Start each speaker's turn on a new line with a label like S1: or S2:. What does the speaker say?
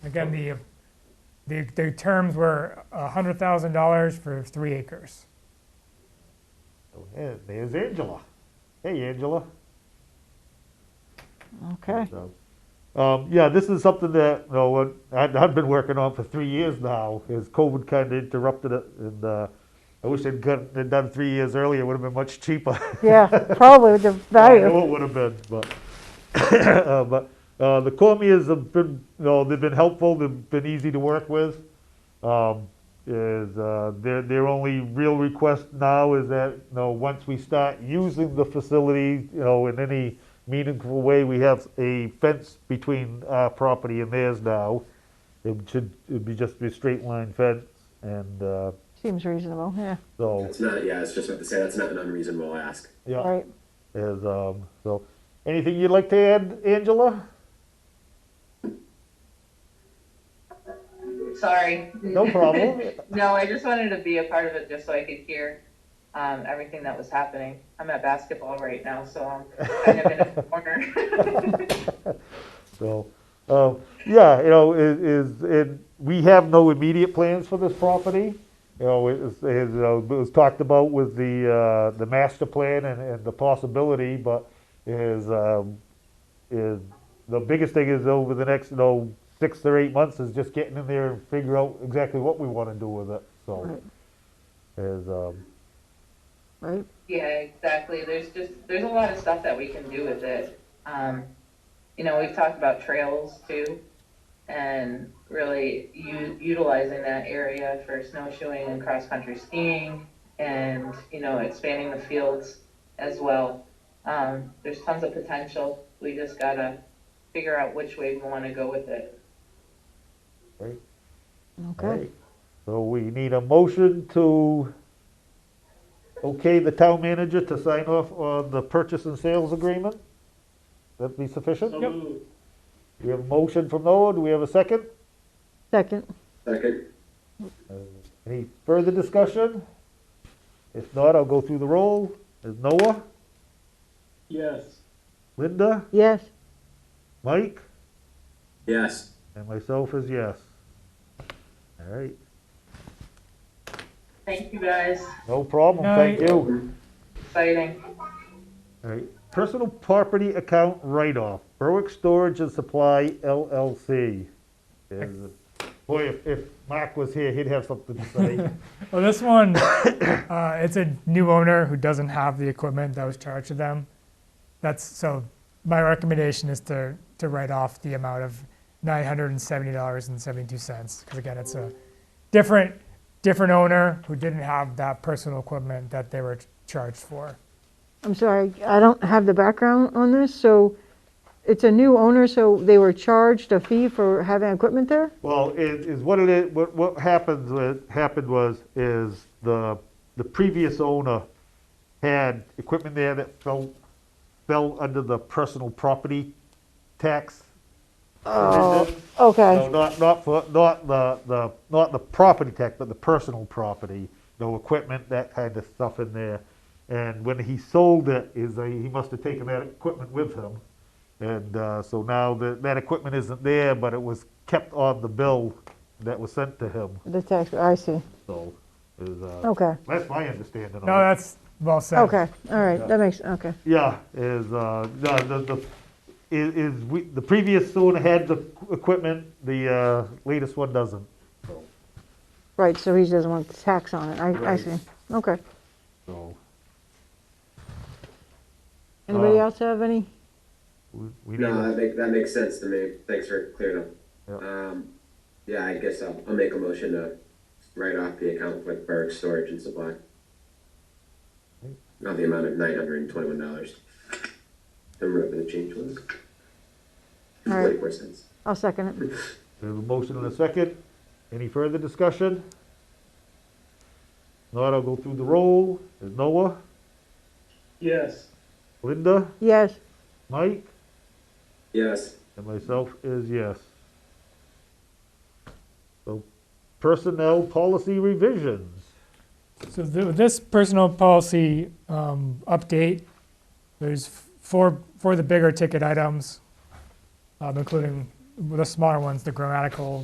S1: Again, the, the, the terms were a hundred thousand dollars for three acres.
S2: There- There's Angela. Hey, Angela.
S3: Okay,
S2: So, Um, yeah, this is something that, you know, what I've, I've been working on for three years now, is COVID kind of interrupted it, and, uh, I wish they'd got, they'd done three years earlier, it would have been much cheaper.
S3: yeah, probably the
S2: I know
S3: value,
S2: it would have been, but, uh, but uh, the Cormiers have been, you know, they've been helpful. They've been easy to work with. Um, is uh, their their only real request now is that you know once we start using the facility, you know, in any meaningful way, we have a fence between our property and theirs now. It should it'd be just be a straight line fence, and uh,
S3: seems reasonable, yeah,
S2: so
S4: That's not, yeah, I was just about to say, that's not an unreasonable ask.
S2: yeah.
S3: right.
S2: Is um, so anything you'd like to add, Angela?
S5: Sorry.
S2: No problem.
S5: No, I just wanted to be a part of it just so I could hear um, everything that was happening. I'm at basketball right now, so I'm kind of in a corner.
S2: So, um, yeah, you know, is, is, it, we have no immediate plans for this property. You know, it is, it is, uh, it was talked about with the, uh, the master plan and, and the possibility, but is, um, is, the biggest thing is over the next, you know, six or eight months is just getting in there and figure out exactly what we wanna do with it, so.
S3: Right.
S2: Is, um,
S3: Right,
S5: yeah, exactly. There's just there's a lot of stuff that we can do with it. Um, you know, we've talked about trails too, and really u- utilizing that area for snowshoeing and cross country skiing, and you know, expanding the fields as well. Um, there's tons of potential. We just gotta figure out which way we want to go with it.
S3: okay,
S2: so we need a motion to okay the town manager to sign off on the purchase and sales agreement? That be sufficient?
S1: Yep.
S2: We have a motion from Noah, do we have a second?
S3: second,
S4: Second,
S2: Any further discussion? If not, I'll go through the roll. Is Noah,
S6: Yes.
S2: Linda,
S3: yes,
S2: Mike,
S4: yes.
S2: and myself is yes. All right,
S5: Thank you guys.
S2: no problem, thank
S1: Night.
S2: you.
S4: Mm-hmm.
S5: Exciting.
S2: All right, personal property account write-off, Berwick Storage and Supply LLC. Is- Boy, if, if Mark was here, he'd have something to say.
S1: Well, this one, uh, it's a new owner who doesn't have the equipment that was charged to them. That's, so my recommendation is to, to write off the amount of nine hundred and seventy dollars and seventy-two cents. Because again, it's a different, different owner who didn't have that personal equipment that they were charged for.
S3: I'm sorry, I don't have the background on this, so it's a new owner, so they were charged a fee for having equipment there?
S2: Well, it is what it is, what, what happens, what happened was, is the, the previous owner had equipment there that fell, fell under the personal property tax. provision. No,
S3: Okay,
S2: not, not for, not the, the, not the property tax, but the personal property, no equipment, that kind of stuff in there. And when he sold it, is, a- he must have taken that equipment with him. And, uh, so now that, that equipment isn't there, but it was kept on the bill that was sent to him,
S3: the tax, I see,
S2: so, is, uh,
S3: okay,
S2: that's my understanding of it.
S1: No, that's well said.
S3: okay, all right, that makes, okay,
S2: Yeah, is, uh, no, the, the, is, is we, the previous owner had the equipment, the, uh, latest one doesn't.
S3: right, so he doesn't want tax on it, I, I
S2: Right.
S3: see, okay.
S2: So,
S3: Anybody
S2: Uh,
S3: else have any?
S2: we, we need
S4: No,
S2: a
S4: that make, that makes sense to me. Thanks for clearing up. Um, yeah, I guess I'll, I'll make a motion to write off the account with Berg Storage and Supply. Not the amount of nine hundred and twenty-one dollars. And whatever the change was.
S3: All right.
S4: Forty-four cents.
S3: I'll second it,
S2: We have a motion and a second. Any further discussion? Not, I'll go through the roll. Is Noah,
S6: Yes.
S2: Linda,
S3: yes,
S2: Mike,
S4: Yes,
S2: and myself is yes. So personnel policy revisions.
S1: So th- this personal policy um, update, there's f- four for the bigger ticket items, um, including the smaller ones, the grammatical